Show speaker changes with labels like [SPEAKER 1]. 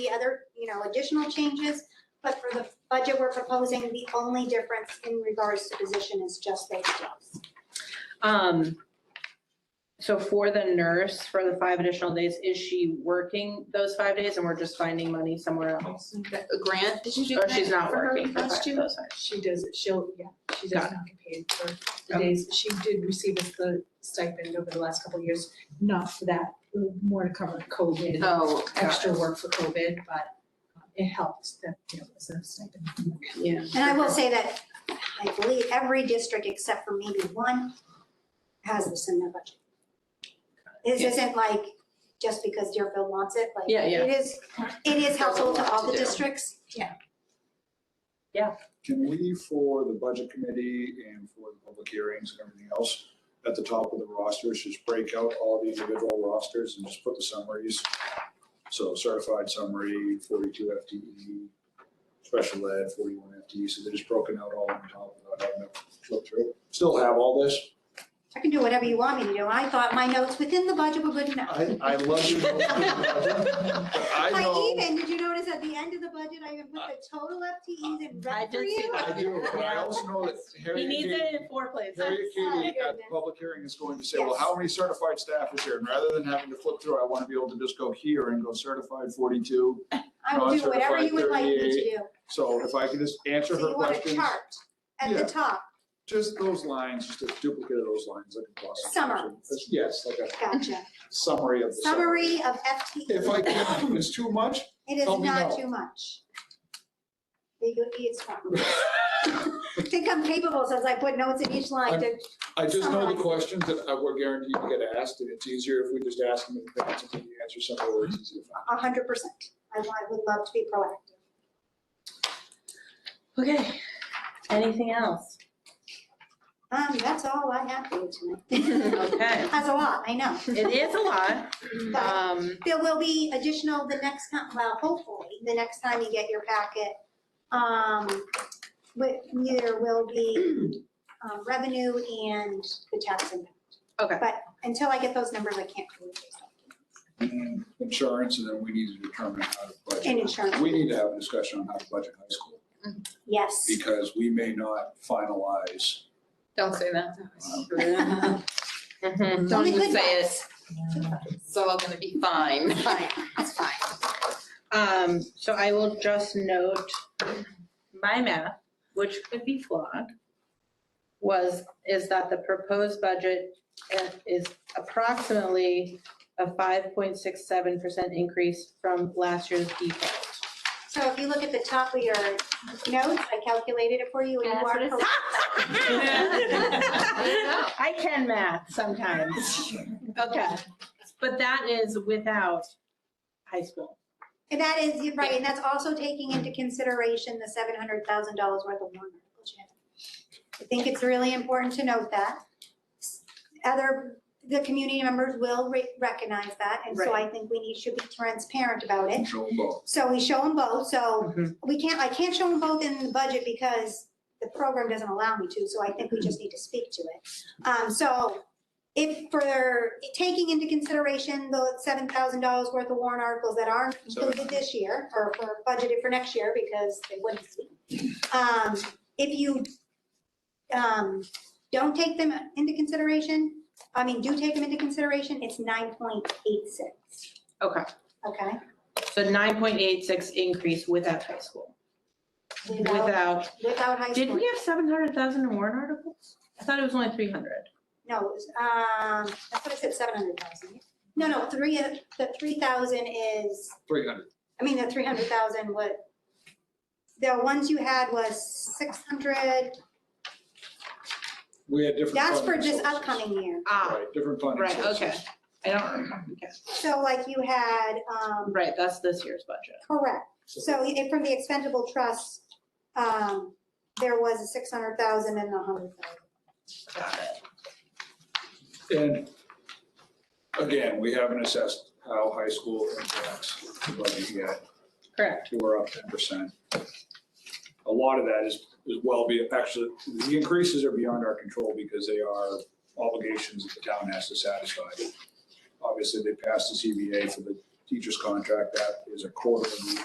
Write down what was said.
[SPEAKER 1] the other, you know, additional changes, but for the budget we're proposing, the only difference in regards to position is just those jobs.
[SPEAKER 2] Um, so for the nurse, for the five additional days, is she working those five days and we're just finding money somewhere else?
[SPEAKER 3] A grant, did you do
[SPEAKER 2] Or
[SPEAKER 3] that
[SPEAKER 2] Oh, she's not
[SPEAKER 3] for her
[SPEAKER 2] working for five,
[SPEAKER 3] last year?
[SPEAKER 2] those five?
[SPEAKER 4] She does, it. she'll, yeah, she does
[SPEAKER 2] Got Oh.
[SPEAKER 4] not get paid for the
[SPEAKER 2] Okay.
[SPEAKER 4] days. She did receive us the stipend over the last couple of years, not for that, more to cover COVID,
[SPEAKER 3] Oh, extra.
[SPEAKER 4] extra work for COVID, but it helped that, you know, it was a stipend.
[SPEAKER 2] Yeah.
[SPEAKER 1] And I will say that I believe every district except for maybe one has this in their budget. This
[SPEAKER 2] Yeah.
[SPEAKER 1] isn't like just because Deerfield wants it, like.
[SPEAKER 2] Yeah, yeah.
[SPEAKER 1] It is, it is helpful to
[SPEAKER 3] There's
[SPEAKER 1] all
[SPEAKER 3] a lot
[SPEAKER 1] the
[SPEAKER 3] to do.
[SPEAKER 1] districts.
[SPEAKER 5] Can we, for the budget committee and for the public hearings and everything else, at the top of the rosters, just break out all the individual rosters and just put the summaries? So certified summary, forty-two FTE, special ed, forty-one FTE, so they're just broken out all on top without having to flip through. Still have all this.
[SPEAKER 1] I can do whatever you want me to do. I thought my notes within the budget were good enough.
[SPEAKER 5] I, I love you. But I
[SPEAKER 1] I
[SPEAKER 5] know,
[SPEAKER 1] even, did you notice at the end of the budget, I even put the total FTEs in
[SPEAKER 2] I
[SPEAKER 1] red
[SPEAKER 2] did
[SPEAKER 1] for
[SPEAKER 2] see
[SPEAKER 1] you?
[SPEAKER 2] that.
[SPEAKER 5] I do, but I also know that Harry
[SPEAKER 2] He
[SPEAKER 5] and
[SPEAKER 2] needs
[SPEAKER 5] Katie-
[SPEAKER 2] it in four places.
[SPEAKER 5] Harriet
[SPEAKER 1] Oh,
[SPEAKER 5] Katie at uh, the
[SPEAKER 1] goodness.
[SPEAKER 5] public hearing is going to say, well, how many certified staff is here? And rather than having to flip through, I want to be able to just go here and go certified forty-two.
[SPEAKER 1] I will do whatever
[SPEAKER 5] Non-certified
[SPEAKER 1] you would like me to do.
[SPEAKER 5] 38. So if I can just answer
[SPEAKER 1] So
[SPEAKER 5] her
[SPEAKER 1] you want a
[SPEAKER 5] questions,
[SPEAKER 1] chart at the
[SPEAKER 5] Yeah.
[SPEAKER 1] top.
[SPEAKER 5] just those lines, just a duplicate of those lines like a glossary.
[SPEAKER 1] Summary.
[SPEAKER 5] Yes, like a
[SPEAKER 1] Gotcha.
[SPEAKER 5] summary of the summary.
[SPEAKER 1] Summary of FTE.
[SPEAKER 5] If I can, it's too much.
[SPEAKER 1] It is
[SPEAKER 5] Tell me
[SPEAKER 1] not
[SPEAKER 5] no.
[SPEAKER 1] too much. Legal is fine. I think I'm capable since I put notes in each line to,
[SPEAKER 5] I just know
[SPEAKER 1] Summarize.
[SPEAKER 5] the questions that I- we're guaranteed to get asked, and it's easier if we just ask them in advance and you answer some of the words easier.
[SPEAKER 1] a hundred percent. I I would love to be proactive.
[SPEAKER 2] Okay, anything else?
[SPEAKER 1] Um, that's all I have for you tonight.
[SPEAKER 2] Okay,
[SPEAKER 1] That's a lot, I know.
[SPEAKER 2] it is a lot.
[SPEAKER 1] But
[SPEAKER 2] Um,
[SPEAKER 1] There will be additional the next time, well, hopefully, the next time you get your packet. Um, but there will be um, revenue and the tax impact.
[SPEAKER 2] Okay.
[SPEAKER 1] But until I get those numbers, I can't. really do something. Mm-hmm.
[SPEAKER 5] And Insurance, and then we need to determine how to budget.
[SPEAKER 1] And insurance.
[SPEAKER 5] We need to have a discussion on how to budget high school,
[SPEAKER 1] Yes.
[SPEAKER 5] because we may not finalize. um,
[SPEAKER 3] Don't say that.
[SPEAKER 2] mhm.
[SPEAKER 1] It's only
[SPEAKER 3] Don't
[SPEAKER 1] good
[SPEAKER 3] say
[SPEAKER 1] vibes. Good vibes.
[SPEAKER 3] It's all gonna be fine.
[SPEAKER 1] Fine, it's fine.
[SPEAKER 2] Um, so I will just note my math, which could be flawed, was, is that the proposed budget uh, is approximately a 5.67% increase from last year's default.
[SPEAKER 1] So if you look at the top of your notes, I calculated it for you and you are correct.
[SPEAKER 2] I can math sometimes. Okay, but that is without high school.
[SPEAKER 1] And that is, you're right, and that's also taking into consideration the seven hundred thousand dollars worth of warrant articles. Shannon. I think it's really important to note that. Other, the community members will re- recognize that, and so I think we need, should be transparent about it.
[SPEAKER 5] Control both.
[SPEAKER 1] So we show them both, so
[SPEAKER 2] Mhm.
[SPEAKER 1] we can't, I can't show them both in the budget because the program doesn't allow me to, so I think we just need to speak to it. Um, so if for taking into consideration the seven thousand dollars worth of warrant articles that aren't included this year or for budgeted for next year because they wouldn't be. Um, if you um, don't take them into consideration, I mean, do take them into consideration, it's nine point eight six,
[SPEAKER 2] Okay,
[SPEAKER 1] okay?
[SPEAKER 2] so 9.86 increase without high school. Without,
[SPEAKER 1] Without high school.
[SPEAKER 2] did we have 700,000 in warrant articles? I thought it was only 300.
[SPEAKER 1] No, it was, um, I thought it said seven hundred thousand. No, no, three, uh, the three thousand is,
[SPEAKER 5] Three hundred.
[SPEAKER 1] I mean, the three hundred thousand what? The ones you had was six hundred,
[SPEAKER 5] We had different.
[SPEAKER 1] that's for
[SPEAKER 5] funding
[SPEAKER 1] this
[SPEAKER 5] sources.
[SPEAKER 1] upcoming year.
[SPEAKER 2] Ah,
[SPEAKER 5] Right, different funding
[SPEAKER 2] right,
[SPEAKER 5] sources.
[SPEAKER 2] okay. I don't remember. Okay.
[SPEAKER 1] So like you had, um,
[SPEAKER 2] Right, that's this year's budget.
[SPEAKER 1] correct. So if from the expendable trust, um, there was a six hundred thousand and a hundred thousand.
[SPEAKER 2] Got it.
[SPEAKER 5] And again, we haven't assessed how high school impacts the budget yet.
[SPEAKER 2] Correct.
[SPEAKER 5] We're up ten percent. A lot of that is, is well be, actually, the increases are beyond our control because they are obligations that the town has to satisfy. Obviously, they passed the CBA for the teacher's contract, that is a quarterly